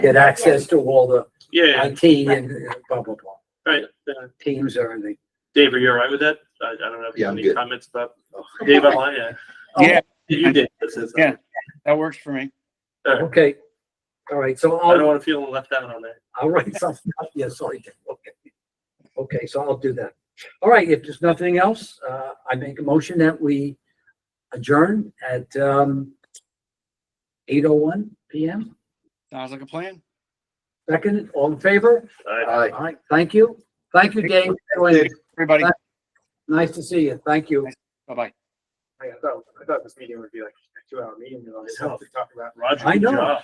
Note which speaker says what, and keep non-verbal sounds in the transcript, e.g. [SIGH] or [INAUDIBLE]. Speaker 1: get access to all the
Speaker 2: Yeah,
Speaker 1: IT and blah, blah, blah.
Speaker 2: right. Uh,
Speaker 1: Teams, everything.
Speaker 2: Dave, are you all right with that? I, I don't know if you
Speaker 3: Yeah,
Speaker 2: have
Speaker 3: I'm
Speaker 2: any
Speaker 3: good. Oh.
Speaker 2: comments about Dave online. Yeah.
Speaker 4: [LAUGHS] Yeah,
Speaker 2: You did. This is-
Speaker 4: Yeah. that works for me.
Speaker 1: Okay. All right, so
Speaker 2: I don't
Speaker 1: I'll,
Speaker 2: want to feel left out on that.
Speaker 1: I'll write something up. [LAUGHS] Yeah, sorry. Dick. Okay. Okay, so I'll do that. All right, if there's nothing else, uh, I make a motion that we adjourn at, um, eight oh one PM.
Speaker 4: Sounds like a plan.
Speaker 1: Second, all in favor?
Speaker 2: All right.
Speaker 5: Uh,
Speaker 3: Aye.
Speaker 1: All right, thank you. Thank you, Dave.
Speaker 4: Everybody,
Speaker 1: Bye. Nice to see you. Thank you.
Speaker 4: bye-bye.
Speaker 5: I thought, I thought this meeting would be like a two hour meeting, you know,
Speaker 2: It's tough.
Speaker 5: to talk about
Speaker 2: Roger,
Speaker 1: I
Speaker 2: good
Speaker 1: know.
Speaker 2: job.